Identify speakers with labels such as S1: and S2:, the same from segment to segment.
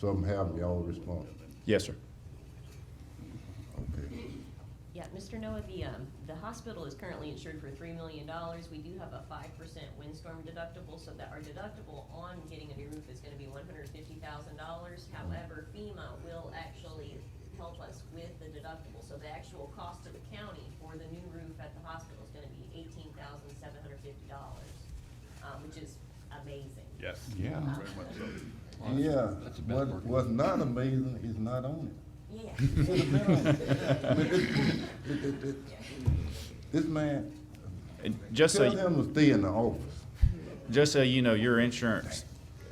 S1: something happen, y'all respond.
S2: Yes, sir.
S1: Okay.
S3: Yeah, Mr. Noah, the, um, the hospital is currently insured for three million dollars. We do have a five percent windstorm deductible, so that our deductible on getting a new roof is gonna be one hundred fifty thousand dollars. However, FEMA will actually help us with the deductible, so the actual cost to the county for the new roof at the hospital is gonna be eighteen thousand seven hundred fifty dollars, um, which is amazing. Uh,
S4: Yes.
S5: Yeah.
S4: Very much so.
S1: Yeah,
S5: That's a bad
S1: what,
S5: market.
S1: what's not amazing is not on
S3: Yeah.
S1: it. Should have been on it. I mean, this- this- this- This man,
S2: And just so.
S1: tell them to stay in the office.
S2: Just so you know, your insurance,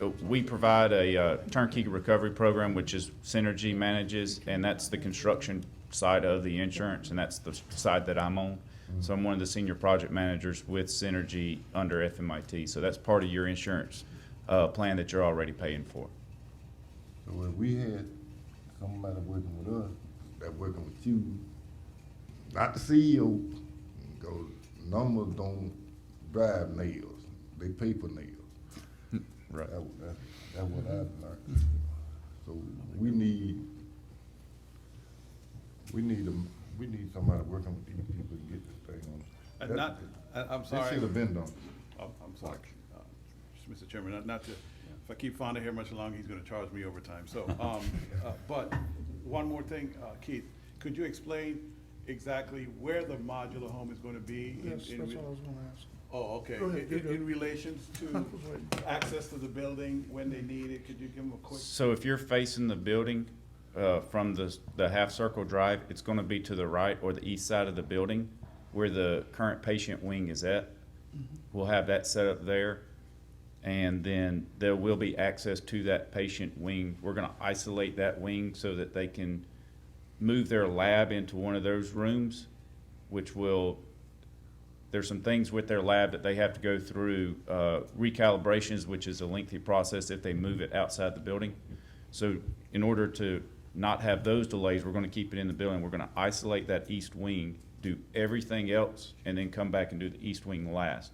S2: uh, we provide a uh, turnkey recovery program, which is Synergy manages, and that's the construction side of the insurance, and that's the side that I'm on. So I'm one of the senior project managers with Synergy under FMIT, so that's part of your insurance uh, plan that you're already paying for.
S1: So if we had somebody working with us, that working with you, not the CEO, go, numbers don't drive nails, they paper nails.
S2: Right.
S1: That, that, that's what I've learned. So we need, we need them, we need somebody working with these people to get this thing on.
S4: And not, I- I'm
S1: This
S4: sorry.
S1: should have been done.
S4: I'm I'm sorry, Uh, Mr. Chairman, not- not to, if I keep Fonda here much longer, he's gonna charge me overtime, so, um, uh, but, one more thing, uh, Keith, could you explain exactly where the modular home is gonna be? in-
S6: Yes,
S4: in
S6: that's
S4: re-
S6: what I was gonna ask.
S4: Oh, okay,
S6: Go ahead,
S4: In-
S6: you
S4: in,
S6: go.
S4: in relations to
S6: was waiting.
S4: access to the building, when they need it, could you give them a quick?
S2: So if you're facing the building uh, from the, the half circle drive, it's going to be to the right or the east side of the building where the current patient wing is at. We'll have that set up there. And then there will be access to that patient wing. We're going to isolate that wing so that they can move their lab into one of those rooms, which will there's some things with their lab that they have to go through uh, recalibrations, which is a lengthy process if they move it outside the building. So, in order to not have those delays, we're going to keep it in the building. We're going to isolate that east wing, do everything else, and then come back and do the east wing last.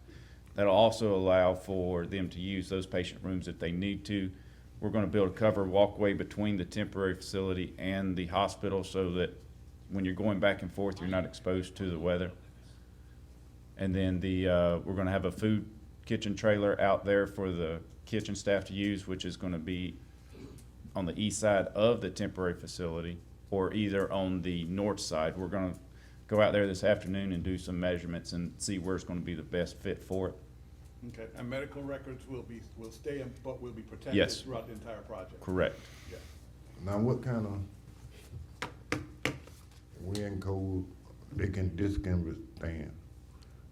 S2: That'll also allow for them to use those patient rooms if they need to. We're going to build a cover walkway between the temporary facility and the hospital so that when you're going back and forth, you're not exposed to the weather. And then the, uh, we're gonna have a food kitchen trailer out there for the kitchen staff to use, which is gonna be on the east side of the temporary facility or either on the north side. We're gonna go out there this afternoon and do some measurements and see where it's gonna be the best fit for it.
S4: Okay, and medical records will be, will stay, in- but will be protected
S2: Yes.
S4: throughout the entire project?
S2: Correct.
S4: Yeah.
S1: Now, what kind of wind, cold, they can, this can withstand?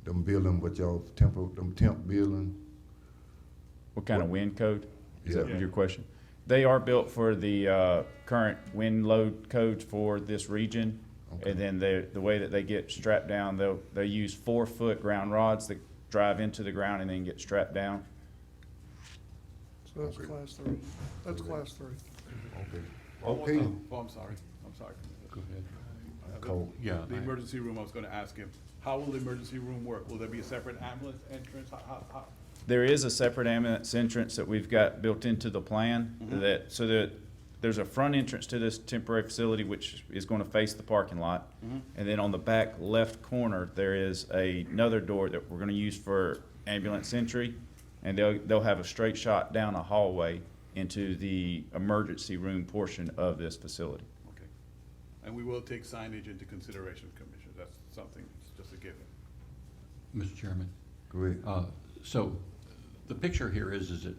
S1: Them building with y'all temp, them temp building?
S2: What kind of wind code? Is that
S1: Yeah.
S2: your question? They are built for the uh, current wind load codes for this region. And then the, the way that they get strapped down, they'll, they use four-foot ground rods that drive into the ground and then get strapped down.
S6: So that's
S1: Okay.
S6: class three. That's class three.
S1: Okay.
S4: One more
S1: Okay.
S4: time. Oh, I'm sorry, I'm sorry.
S5: Go ahead.
S1: Cold.
S5: Yeah.
S4: The emergency room, I was gonna ask him, how will the emergency room work? Will there be a separate ambulance entrance? How, how, how?
S2: There is a separate ambulance entrance that we've got built into the plan
S5: Mm-hmm.
S2: that, so that there's a front entrance to this temporary facility, which is going to face the parking lot.
S5: Mm-hmm.
S2: And then on the back left corner, there is a- another door that we're going to use for ambulance entry. And they'll, they'll have a straight shot down a hallway into the emergency room portion of this facility.
S4: Okay. And we will take signage into consideration, Commissioner. That's something, it's just a given.
S5: Mr. Chairman,
S1: Great.
S5: uh, so the picture here is, is that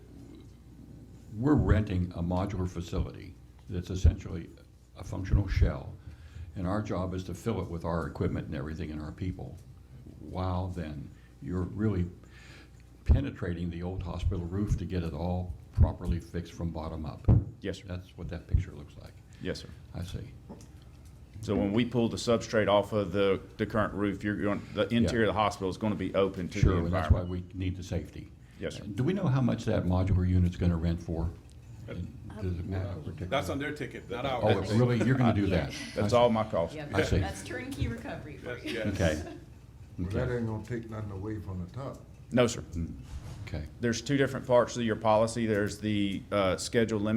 S5: we're renting a modular facility that's essentially a functional shell, and our job is to fill it with our equipment and everything and our people. While then, you're really penetrating the old hospital roof to get it all properly fixed from bottom up.
S2: Yes, sir.
S5: That's what that picture looks like.
S2: Yes, sir.
S5: I see.
S2: So when we pull the substrate off of the, the current roof, you're going, the interior of the hospital is going to be open to the
S5: Sure, and
S2: environment.
S5: that's why we need the safety.
S2: Yes, sir.
S5: Do we know how much that modular unit's gonna rent for?
S2: Uh,
S5: Does it matter particularly?
S4: That's on their ticket, not ours.
S5: Oh, it's really, you're gonna do that?
S2: Uh, That's all my cost.
S3: Yeah,
S5: I see.
S3: that's turnkey recovery for
S4: Yes,
S3: you.
S4: yes.
S5: Okay,
S1: Well, that ain't gonna take nothing away from the top.
S2: No, sir.
S5: okay.
S2: There's two different parts to your policy. There's the uh, schedule limit